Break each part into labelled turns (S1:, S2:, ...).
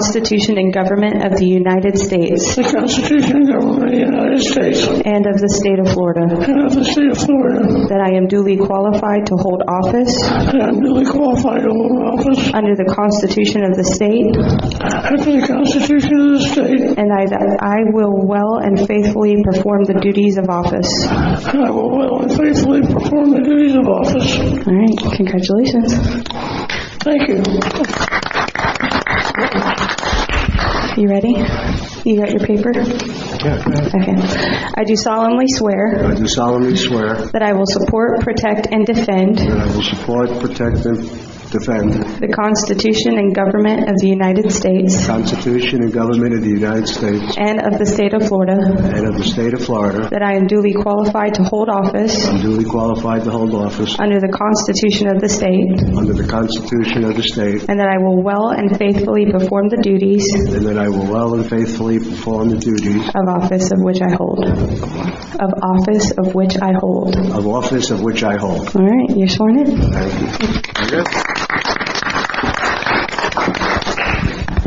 S1: Constitution and government of the United States
S2: the Constitution and government of the United States
S1: and of the state of Florida,
S2: and of the state of Florida,
S1: that I am duly qualified to hold office
S2: that I am duly qualified to hold office
S1: under the Constitution of the state,
S2: after the Constitution of the state,
S1: and I- that I will well and faithfully perform the duties of office.
S2: and I will well and faithfully perform the duties of office.
S1: All right, congratulations.
S2: Thank you.
S1: You ready? You got your paper?
S3: Yeah, go ahead.
S1: Okay. I do solemnly swear
S3: I do solemnly swear
S1: that I will support, protect, and defend
S3: that I will support, protect, and defend the
S1: the Constitution and government of the United States
S3: Constitution and government of the United States
S1: and of the state of Florida,
S3: and of the state of Florida.
S1: that I am duly qualified to hold office
S3: I'm duly qualified to hold office
S1: under the Constitution of the state,
S3: under the Constitution of the state,
S1: and that I will well and faithfully perform the duties
S3: and that I will well and faithfully perform the duties
S1: of office of which I hold. Of office of which I hold.
S3: of office of which I hold.
S1: All right, you're sworn in.
S3: Thank you.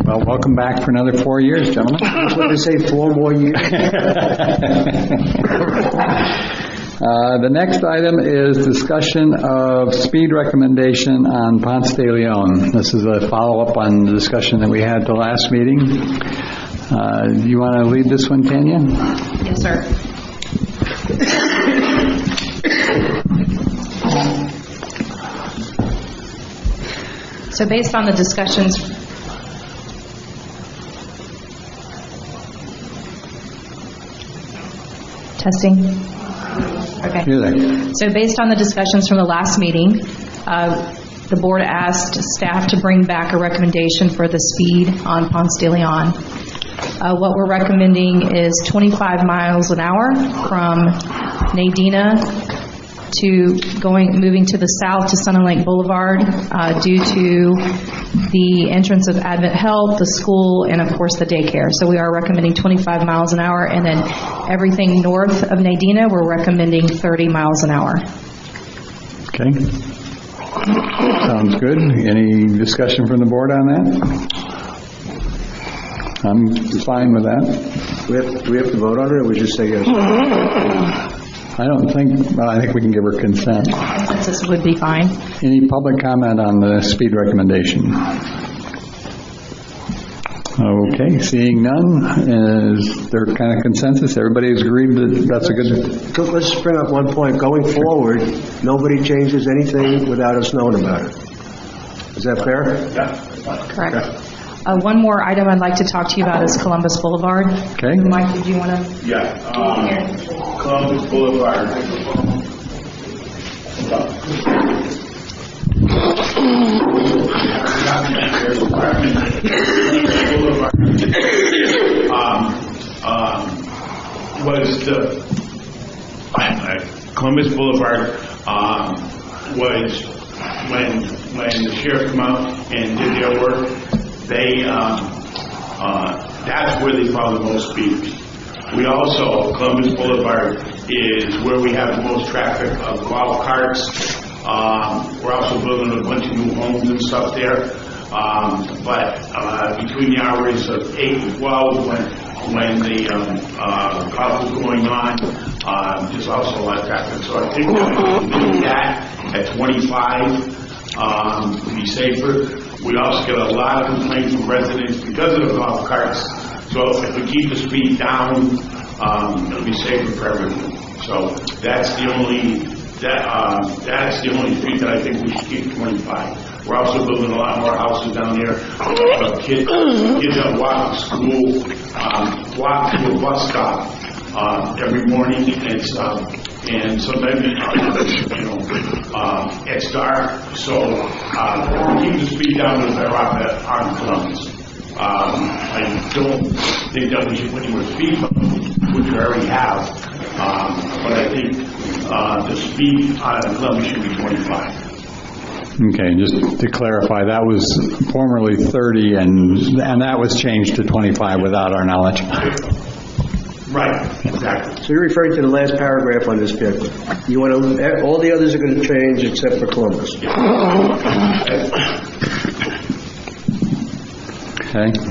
S4: Well, welcome back for another four years, gentlemen.
S3: I was going to say four more years.
S4: Uh, The next item is discussion of speed recommendation on Ponce de Leon. This is a follow-up on the discussion that we had the last meeting. Uh, You want to lead this one, Tanya?
S5: Yes, sir. So based on the discussions, testing? Okay.
S4: You're there.
S5: So based on the discussions from the last meeting, uh, the board asked staff to bring back a recommendation for the speed on Ponce de Leon. Uh, What we're recommending is 25 miles an hour from Nadina to going, moving to the south to Sun and Lake Boulevard uh, due to the entrance of Advent Health, the school, and of course the daycare. So we are recommending 25 miles an hour, and then everything north of Nadina, we're recommending 30 miles an hour.
S4: Okay. Sounds good. Any discussion from the board on that? I'm fine with that.
S3: We have, do we have to vote on it, or we just say yes?
S4: I don't think, well, I think we can give her consent.
S5: Consensus would be fine.
S4: Any public comment on the speed recommendation? Okay, seeing none, is there kind of consensus? Everybody has agreed that that's a good,
S3: Go- Let's just bring up one point. Going forward, nobody changes anything without us knowing about it. Is that fair?
S5: Correct. Uh, One more item I'd like to talk to you about is Columbus Boulevard.
S4: Okay.
S5: Mike, did you want to?
S6: Yeah, um, Columbus Boulevard. Um, um, Was the, I- I- Columbus Boulevard, um, was, when, when the sheriff come out and did their work, they, um, uh, that's where they found the most speed. We also, Columbus Boulevard is where we have the most traffic of golf carts. Um, We're also building a bunch of new homes and stuff there. Um, But uh, between the hours of 8 and 12, when, when the um, uh, golf is going on, um, there's also a lot of traffic. So I think we can do that at 25 um, to be safer. We also get a lot of complaints from residents because of the golf carts. So if we keep the speed down, um, it'll be safer for everyone. So that's the only, that, um, that's the only street that I think we should keep 25. We're also building a lot more houses down there. Uh, Kids, kids that walk to school, um, walk to a bus stop uh, every morning, and it's, um, and sometimes, you know, uh, it's dark, so uh, keep the speed down as I rock that on Columbus. Um, I don't think that we should put any more speed bumps, which we already have, um, but I think uh, the speed on Columbus should be 25.
S4: okay, just to clarify, that was formerly 30, and, and that was changed to 25 without our knowledge.
S6: Right, exactly.
S3: So you're referring to the last paragraph on this paper. You want to, all the others are going to change except for Columbus.
S4: Okay.